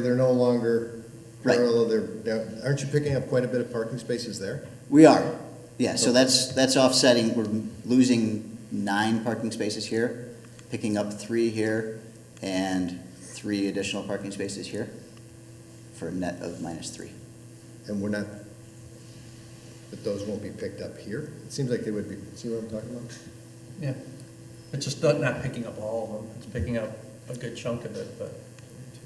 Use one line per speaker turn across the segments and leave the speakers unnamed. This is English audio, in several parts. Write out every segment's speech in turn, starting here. They're no longer
Right.
parallel, they're, now, aren't you picking up quite a bit of parking spaces there?
We are, yeah, so that's, that's offsetting, we're losing nine parking spaces here, picking up three here, and three additional parking spaces here, for a net of minus three.
And we're not, but those won't be picked up here? It seems like they would be, see what I'm talking about?
Yeah, it's just not, not picking up all of them, it's picking up a good chunk of it, but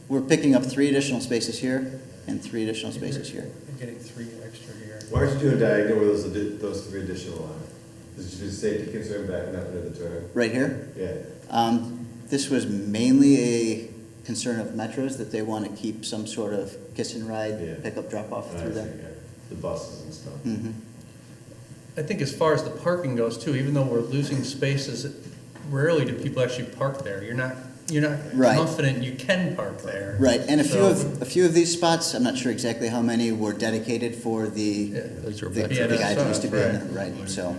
We're picking up three additional spaces here, and three additional
Mm-hmm.
spaces here.
you're getting three extra here.
Why aren't you doing diagonal where those, addi- those three additional are? Is it just safety concern backing up into the turn?
Right here,
Yeah.
um, this was mainly a concern of Metro's, that they want to keep some sort of kiss and
Yeah.
ride, pickup, drop off
And I
through
see,
there.
yeah, The buses and stuff.
Mhm.
I think as far as the parking goes too, even though we're losing spaces, rarely do people actually park there. You're not, you're not
Right.
confident you can park there.
Right, and a few
So-
of, a few of these spots, I'm not sure exactly how many, were dedicated for
Yeah.
the,
Those
the
are
the
veteran-
Yeah, that's
guys who used to be in
right.
it, right, so.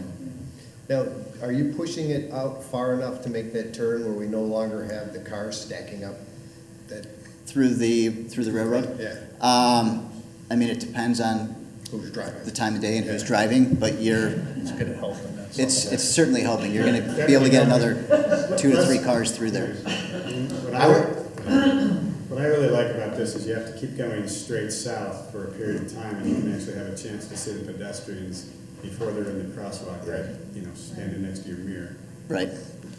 Now, are you pushing it out far enough to make that turn where we no longer have the cars stacking up? That,
Through the, through the railroad?
Yeah.
Um, I mean, it depends on
who's
the
driving?
time of day and who's
Yeah.
driving, but you're,
It's gonna help in that.
it's, it's certainly helping, you're gonna be able to get another two to three cars through there.
What I, what I really like about this is you have to keep going straight south for a period of time and you can actually have a chance to see the pedestrians before they're in the crosswalk, right? You know, standing next to your mirror.
Right,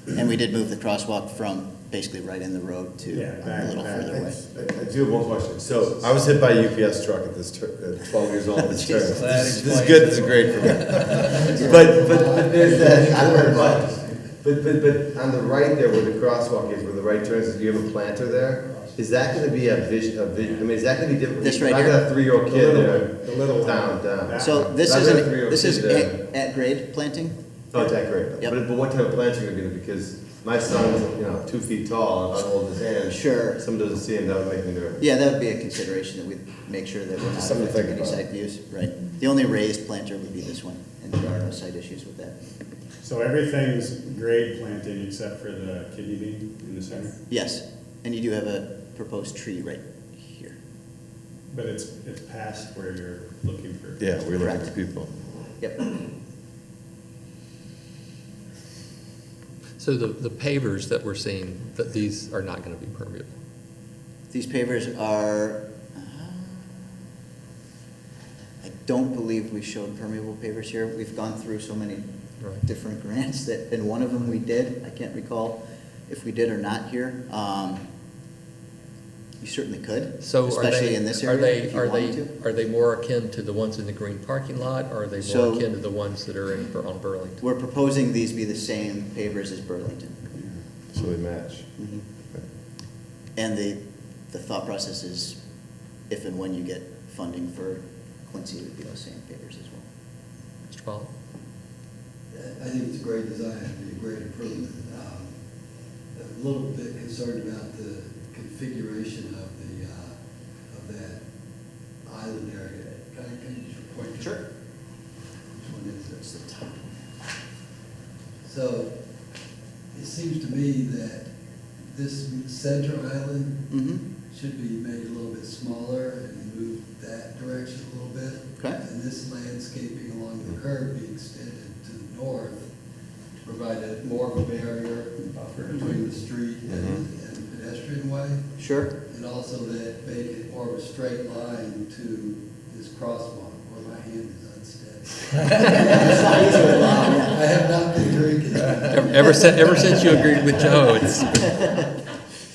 and we did move the crosswalk from basically right in the road to
Yeah,
a
back,
little
back.
further away.
I I do have one question. So I was hit by a UPS truck at this, tur- at twelve years old, this turn.
Jesus.
That
This is good, this is great for me. But, but, but there's that, I don't know, but, but, but, but on the right there where the crosswalk is, where the right turns, do you have a planter there? Is that gonna be a vision, a vision, I mean, is that gonna be different?
This right
I got a three-year-old
The
kid
little
there.
one, the little one.
Down, down.
So this
I've
is,
got
an-
three or
this
two
is
there.
at, at grade planting?
Oh, it's that great.
Yep.
But, but what type of plants are you gonna do? Because my son's, you know, two feet tall, and if I hold his hand.
Sure.
Someone doesn't see him, that would make me nervous.
Yeah, that would be a consideration that we make sure that we're not
Something to
affecting
think
any
about.
side views, right? The only raised planter would be this one, and there are no side issues with that.
So everything's grade planting except for the kidney bean in the center,
Yes, and you do have a proposed tree right here.
but it's, it's past where you're looking for.
Yeah, we're
looking for
people.
Yep,
So the, the pavers that we're seeing, that these are not gonna be permeable.
these pavers are, uh, I don't believe we showed permeable pavers here. We've gone through so many
Right.
different grants that, and one of them we did, I can't recall if we did or not here. Um, You certainly could,
So are
especially
they,
in this
are
area,
they,
if you
are
wanted to.
they, are they more akin to the ones in the green parking lot? Or are they
So-
more akin to the ones that are in, on Burlington?
We're proposing these be the same pavers as Burlington.
So they match.
Mm-hmm. And the, the thought process is if and when you get funding for Quincy, it would be those same pavers as well.
Mr. Paul?
I think it's a great design, it'd be a great improvement. Um, A little bit concerned about the configuration of the, uh, of that island area. Can I- can you just point to? Sure. Which one is it?
It's the top.
So it seems to me that this center island
Mm-hmm,
should be made a little bit smaller and move that direction a little bit.
Okay.
And this landscaping along the curb be extended to the north to provide a more of a barrier between the street and and pedestrian way.
sure.
And also that make it more of a straight line to this crosswalk where my hand is unsteady. I have not been drinking.
Ever ever since, ever since you agreed with Joe, it's,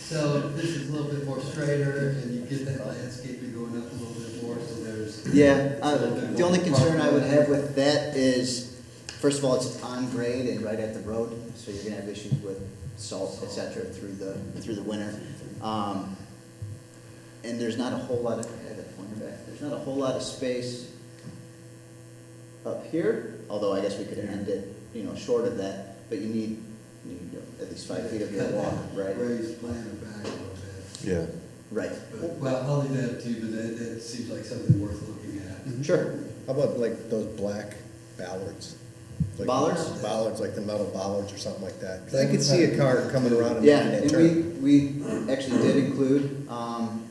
So this is a little bit more straighter, and you get that landscaping going up a little bit more, so there's.
Yeah,
it's a
uh,
little bit
the
more
only concern I would
parking.
have with that is, first of all, it's on grade and right at the road, so you're gonna have issues with salt, et cetera, through the, through the winter. Um, and there's not a whole lot of, I had that pointer back, there's not a whole lot of space up here, although I guess we could end it, you know, short of that, but you need, you need at least five feet of your wall, right?
Raised planter back a little bit.
Yeah.
Right,
But, well, I'll leave that to you, but that, that seems like something worth looking at.
sure,
How about like those black ballards? Like-
Bollards?
Bollards, like the metal bollards or something like that. 'Cause I could see a car coming around and
Yeah,
making that
and
turn.
we, we actually did include, um,